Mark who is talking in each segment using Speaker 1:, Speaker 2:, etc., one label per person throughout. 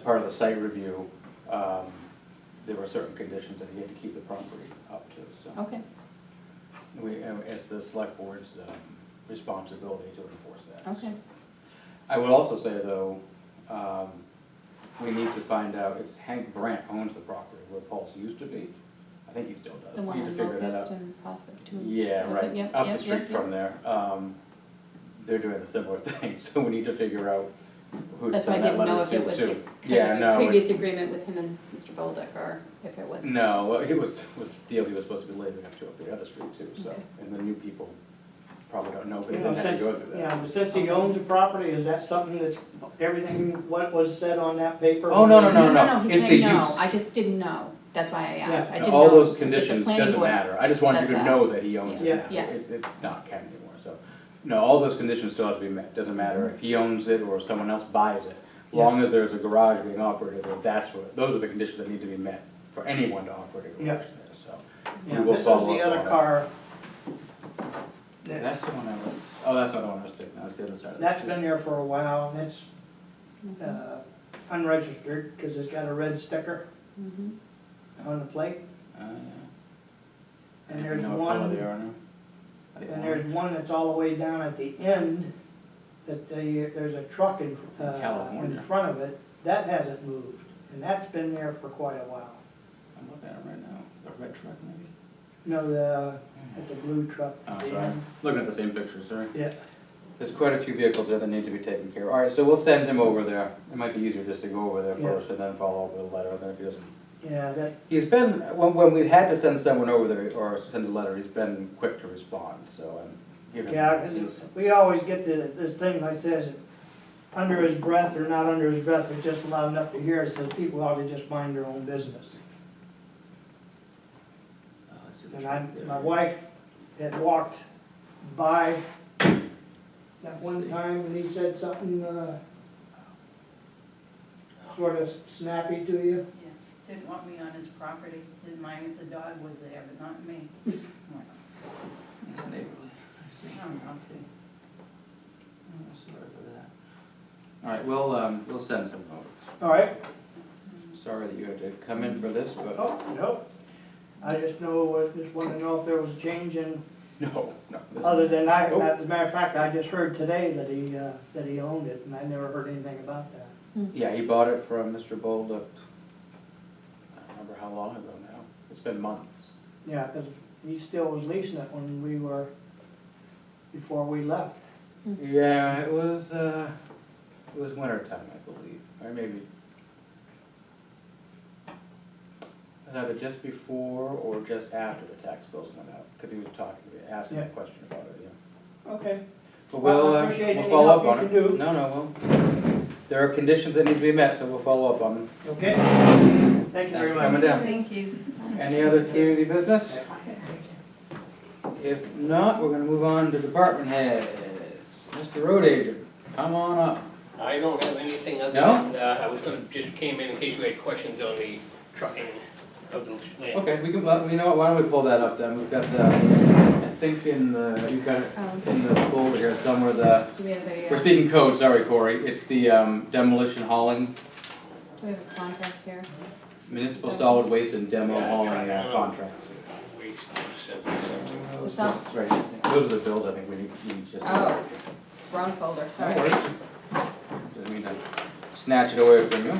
Speaker 1: part of the site review, um, there were certain conditions that he had to keep the property up to, so.
Speaker 2: Okay,
Speaker 1: We, uh, it's the select board's um, responsibility to enforce that.
Speaker 2: okay,
Speaker 1: I will also say though, um, we need to find out, it's Hank Brandt owns the property where Paul's used to be. I think he still does.
Speaker 2: the
Speaker 1: We
Speaker 2: one
Speaker 1: need to
Speaker 2: on
Speaker 1: figure that
Speaker 2: Locust
Speaker 1: out.
Speaker 2: and Prospect Two.
Speaker 1: Yeah,
Speaker 2: That's it,
Speaker 1: right,
Speaker 2: yep,
Speaker 1: up the
Speaker 2: yep,
Speaker 1: street
Speaker 2: yep, yep.
Speaker 1: from there. Um, they're doing a similar thing, so we need to figure out who to
Speaker 2: That's why I
Speaker 1: send that
Speaker 2: didn't know
Speaker 1: letter
Speaker 2: if it
Speaker 1: to
Speaker 2: was,
Speaker 1: too.
Speaker 2: if,
Speaker 1: Yeah,
Speaker 2: because of
Speaker 1: no,
Speaker 2: a
Speaker 1: it-
Speaker 2: previous agreement with him and Mr. Bolduc, or if it was.
Speaker 1: No, well, it was, was deal he was supposed to be living up to up the other street too, so,
Speaker 2: Okay.
Speaker 1: and the new people probably don't know, but they
Speaker 3: You know,
Speaker 1: didn't have to
Speaker 3: since-
Speaker 1: go through that.
Speaker 3: Yeah, but since he owns the property, is that something that's, everything, what was said on that paper?
Speaker 1: Oh, no,
Speaker 2: No, no,
Speaker 1: no,
Speaker 2: he's
Speaker 1: it's
Speaker 2: saying
Speaker 1: the
Speaker 2: no,
Speaker 1: use.
Speaker 2: I just didn't know, that's why I asked, I
Speaker 3: Yeah.
Speaker 2: didn't know.
Speaker 1: All
Speaker 2: if
Speaker 1: those
Speaker 2: the
Speaker 1: conditions,
Speaker 2: planning
Speaker 1: doesn't
Speaker 2: board
Speaker 1: matter, I just wanted
Speaker 2: said
Speaker 1: you to
Speaker 2: that.
Speaker 1: know that he owns
Speaker 2: Yeah.
Speaker 1: it now,
Speaker 2: Yeah.
Speaker 1: it's, it's not Ken anymore, so. No, all those conditions still have to be met, doesn't matter if he owns it or someone else buys it, long as there's a garage being operated, or that's what, those are the conditions that need to be met for anyone to operate a
Speaker 3: Yeah.
Speaker 1: garage there, so. we
Speaker 3: Yeah,
Speaker 1: will
Speaker 3: this was
Speaker 1: follow
Speaker 3: the
Speaker 1: up
Speaker 3: other
Speaker 1: on it.
Speaker 3: car.
Speaker 1: Yeah,
Speaker 3: That-
Speaker 1: That's the one I was, oh, that's not the one I was thinking, that's the other side of the
Speaker 3: That's
Speaker 1: street.
Speaker 3: been there for a while, and it's uh, unregistered, because it's got a red sticker
Speaker 2: Mhm.
Speaker 3: on the plate.
Speaker 1: Uh, yeah. If
Speaker 3: And
Speaker 1: you
Speaker 3: there's
Speaker 1: know what color
Speaker 3: one-
Speaker 1: they are now. I think
Speaker 3: And there's one that's all the way down at the end, that they, there's a truck in, uh, in
Speaker 1: California.
Speaker 3: front of it, that hasn't moved, and that's been there for quite a while.
Speaker 1: I'm looking at it right now, the red truck maybe?
Speaker 3: No, the, it's a blue truck
Speaker 1: Oh,
Speaker 3: at the
Speaker 1: sorry,
Speaker 3: end.
Speaker 1: looking at the same picture, sorry.
Speaker 3: Yeah,
Speaker 1: There's quite a few vehicles there that need to be taken care of. All right, so we'll send him over there. It might be easier just to go over there
Speaker 3: Yeah.
Speaker 1: first and then follow up with a letter, and then if he doesn't.
Speaker 3: yeah, that,
Speaker 1: He's been, when, when we've had to send someone over there or send a letter, he's been quick to respond, so I'm giving. him-
Speaker 3: Yeah, 'cause
Speaker 1: he's-
Speaker 3: we always get the, this thing like says, under his breath or not under his breath, but just loud enough to hear, it says people ought to just mind their own business.
Speaker 1: Oh, I see the
Speaker 3: And
Speaker 1: truck
Speaker 3: I,
Speaker 1: there.
Speaker 3: my wife had walked by that one time and he said something, uh, sort of snappy to you.
Speaker 4: Yeah, Didn't want me on his property, didn't mind if the dog was there, but not me. I'm like,
Speaker 1: It's neighborly. I see.
Speaker 4: I don't know.
Speaker 1: Okay. Oh, Sorry for that. All right, we'll, um, we'll send someone over.
Speaker 3: All right,
Speaker 1: Sorry that you had to come in for this, but.
Speaker 3: oh, no, I just know, uh, just wanted to know if there was a change in
Speaker 1: No, no. this-
Speaker 3: Other than I,
Speaker 1: Oh.
Speaker 3: as a matter of fact, I just heard today that he, uh, that he owned it, and I never heard anything about that.
Speaker 1: Yeah, he bought it from Mr. Bold up, I don't remember how long ago now, it's been months.
Speaker 3: Yeah, because he still was leasing it when we were, before we left.
Speaker 1: Yeah, it was, uh, it was winter time, I believe, or maybe. It was either just before or just after the tax bills went out, because he was talking, to me, asking a
Speaker 3: Yeah.
Speaker 1: question about it, yeah.
Speaker 3: Okay.
Speaker 1: But
Speaker 3: Well, I
Speaker 1: we'll, uh,
Speaker 3: appreciate
Speaker 1: we'll
Speaker 3: any
Speaker 1: follow up
Speaker 3: help
Speaker 1: on
Speaker 3: you
Speaker 1: it.
Speaker 3: can do.
Speaker 1: No, no, well, there are conditions that need to be met, so we'll follow up on them.
Speaker 3: Okay. Thank you
Speaker 1: Thanks
Speaker 3: very
Speaker 1: for
Speaker 3: much.
Speaker 1: coming down.
Speaker 4: Thank you.
Speaker 1: Any other community business? If not, we're gonna move on to department heads. Mr. Road Agent, come on up.
Speaker 5: I don't have anything other
Speaker 1: No?
Speaker 5: than, uh, I was gonna, just came in in case you had questions on the trucking of the land.
Speaker 1: Okay, we can, well, you know what, why don't we pull that up then? We've got the, I think in the, you've got it
Speaker 2: Oh,
Speaker 1: in the folder here somewhere, the,
Speaker 2: do we have a,
Speaker 1: we're
Speaker 2: uh, do
Speaker 1: speaking code, sorry Corey. It's the um, demolition hauling,
Speaker 2: we have a contract here?
Speaker 1: municipal solid waste and demo hauling uh, contract.
Speaker 5: Waste and something.
Speaker 2: What's up?
Speaker 1: Right, those are the bills I think we need, we need just.
Speaker 2: Oh. Wrong folder,
Speaker 1: No
Speaker 2: sorry.
Speaker 1: worries. Didn't mean to snatch it away from you.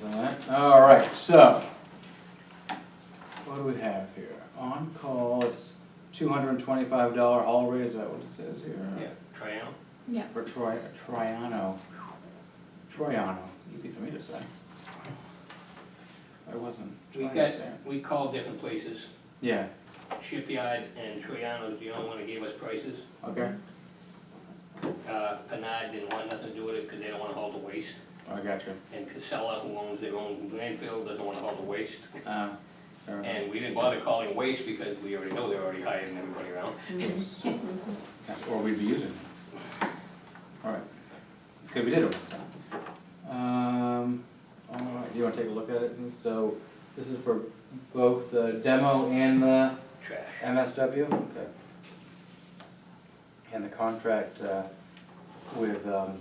Speaker 1: There's that. All right, so. What do we have here? On call, it's two hundred and twenty-five dollar haul rate, is that what it says here?
Speaker 5: Yeah, Triumph.
Speaker 2: Yeah.
Speaker 1: For Troy, Troiano. Troiano, easy for me to say. I wasn't
Speaker 5: We
Speaker 1: trying to
Speaker 5: got,
Speaker 1: say it.
Speaker 5: we called different places,
Speaker 1: Yeah,
Speaker 5: Shipyard and Triano's the only one that gave us prices.
Speaker 1: okay,
Speaker 5: Uh, Panad didn't want nothing to do with it, cause they don't wanna haul the waste,
Speaker 1: I got you.
Speaker 5: and Casella, who owns their own landfill, doesn't wanna haul the waste.
Speaker 1: Uh, fair enough.
Speaker 5: And we didn't bother calling waste because we already know they're already hiring everybody around.
Speaker 1: That's what we'd be using. Alright, okay, we did it one time. Um, alright, you wanna take a look at it, And so, this is for both the demo and the
Speaker 5: Trash.
Speaker 1: MSW? Okay. And the contract, uh, with, um,